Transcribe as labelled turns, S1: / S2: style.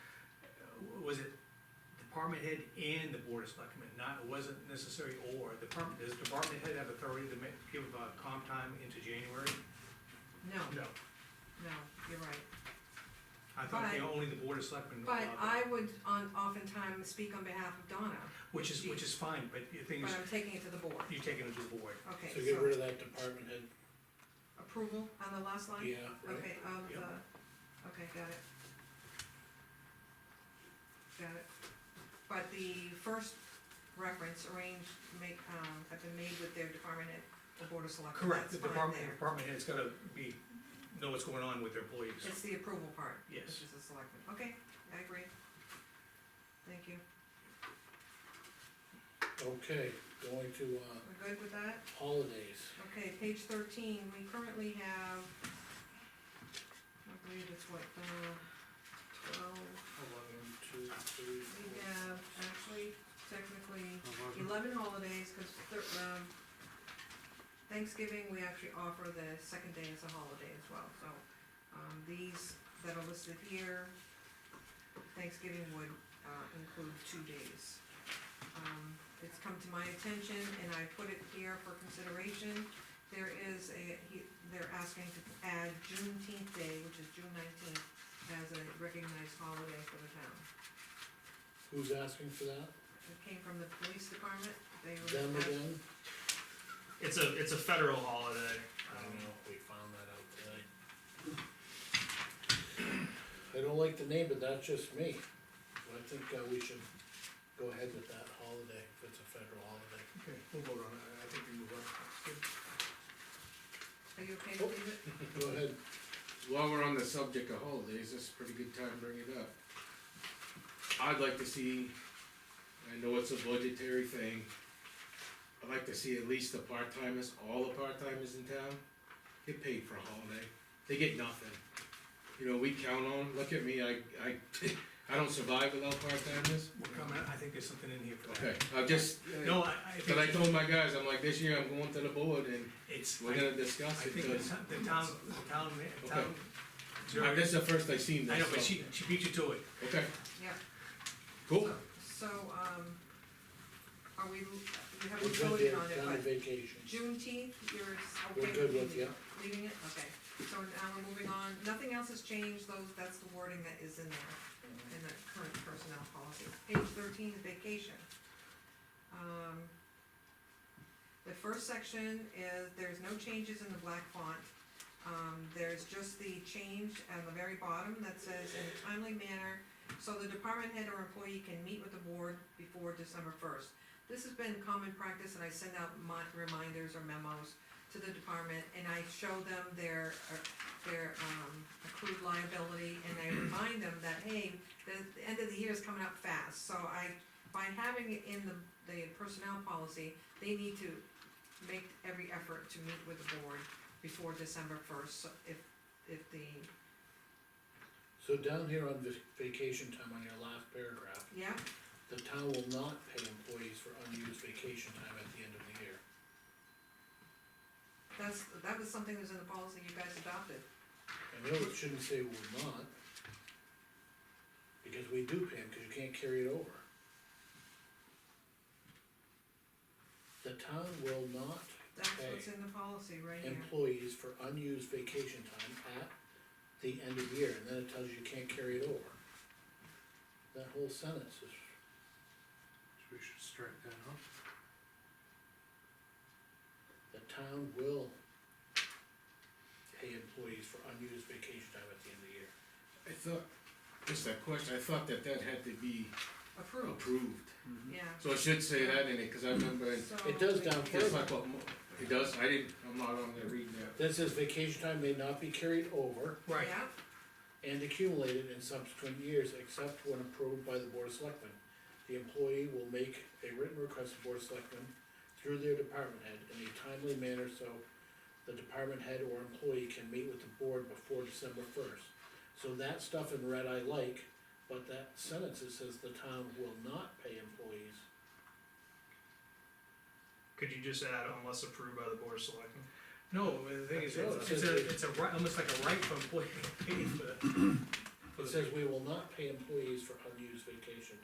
S1: department head and the board of selectmen, not, it wasn't necessary or, the department, does department head have authority to make, give, uh, comp time into January?
S2: No,
S1: No.
S2: no, you're right.
S1: I thought they,
S2: But-
S1: only the board of selectmen.
S2: But
S1: allowed that,
S2: I would on, oftentimes speak on behalf of Donna,
S1: Which is, which is fine, but the thing
S2: but
S1: is,
S2: I'm taking it to the board.
S1: you take it to the board.
S2: Okay,
S3: So get rid
S2: so
S3: of that department head,
S2: approval on the last line?
S3: yeah, right?
S2: Okay, of
S1: Yep.
S2: the, okay, got it. Got it. But the first reference arranged, make, um, have been made with their department head, the board of selectmen.
S1: Correct, the
S2: That's fine
S1: department,
S2: there.
S1: department head's gotta be, know what's going on with their employees.
S2: It's the approval part.
S1: Yes.
S2: This is the selectmen, okay, I agree. Thank you,
S3: Okay, going to, uh,
S2: we're good with that?
S3: holidays,
S2: Okay, page thirteen, we currently have, I believe it's what, uh, twelve,
S3: eleven, two, three,
S2: we
S3: four.
S2: have actually technically eleven holidays, cause thir- um, Thanksgiving, we actually offer the second day as a holiday as well, so, um, these that are listed here, Thanksgiving would, uh, include two days. Um, it's come to my attention and I put it here for consideration, there is a, he, they're asking to add Juneteenth day, which is June nineteenth, as a recognized holiday for the town.
S3: Who's asking for that?
S2: It came from the police department, they were.
S3: Them again?
S4: It's a it's a federal holiday.
S3: I don't
S4: Um,
S3: know, we found that out today. I don't like the name, but that's just me. I think, uh, we should go ahead with that holiday, if it's a federal holiday.
S1: Okay, we'll vote on it, I think we move on. That's
S2: Are you okay to leave it?
S3: Go ahead,
S5: While we're on the subject of holidays, this is a pretty good time to bring it up. I'd like to see, I know it's a budgetary thing, I'd like to see at least the part-timers, all the part-timers in town, get paid for a holiday. They get nothing. You know, we count on, look at me, I, I, I don't survive without part-timers.
S1: good. We're coming, I think there's something in here for
S5: Okay,
S1: that.
S5: I just,
S1: No, I, I
S5: but I
S1: think
S5: told my guys, I'm like, this year I'm going to the board and
S1: it's,
S5: we're
S1: I
S5: gonna discuss
S1: I
S5: it,
S1: think the
S5: 'cause
S1: town, the town, the town, ma- town.
S5: I- this is the first I seen this.
S1: I know, but
S5: so-
S1: she, she beat you to it.
S5: Okay,
S2: Yeah.
S5: cool.
S2: So, um, are we, we
S3: we're
S2: haven't
S3: good there,
S2: voted on it,
S3: down on
S2: but
S3: vacation.
S2: Juneteenth, you're s- okay
S3: We're
S2: with
S3: good with,
S2: leaving it? Leaving it, okay. So now we're moving on, nothing else has changed, those, that's the wording that is in there, in the current personnel policy. Page thirteen is vacation. Um, the first section is, there's no changes in the black font. Um, there's just the change at the very bottom that says in a timely manner, so the department head or employee can meet with the board before December first. This has been common practice, and I send out my reminders or memos to the department, and I show them their, uh, their, um, accrued liability, and I remind them that, hey, the, the end of the year is coming up fast, so I, by having it in the, the personnel policy, they need to make every effort to meet with the board before December first, if, if the,
S3: So down here on vac- vacation time, on your last paragraph,
S2: yeah,
S3: the town will not pay employees for unused vacation time at the end of the year.
S2: that's, that was something that was in the policy you guys adopted.
S3: I know it shouldn't say will not. Because we do pay them, cause you can't carry it over. The town will not
S2: That's what's
S3: pay
S2: in the policy right here.
S3: employees for unused vacation time at the end of the year, and then it tells you you can't carry it over. That whole sentence is,
S6: We should strike that out.
S3: the town will pay employees for unused vacation time at the end of the year.
S5: I thought, just a question, I thought that that had to be
S2: Approved,
S5: approved,
S2: yeah.
S5: so it should say that in it, cause I remember, in-
S2: So
S3: It does
S2: we-
S3: down
S5: just
S3: further,
S5: like what, Mo- it does, I didn't, I'm not on there reading that.
S3: that says vacation time may not be carried over
S1: Right.
S2: Yeah,
S3: and accumulated in subsequent years, except when approved by the Board of Selectmen. The employee will make a written request to Board of Selectmen through their department head in a timely manner, so the department head or employee can meet with the board before December first. So that stuff in red I like, but that sentence that says the town will not pay employees,
S4: Could you just add unless approved by the board of selectmen?
S1: No, the thing is,
S3: No,
S1: it's,
S3: it
S1: it's a,
S3: says-
S1: it's a right, almost like a right for employee to pay for the. for
S3: it
S1: the-
S3: says we will not pay employees for unused vacation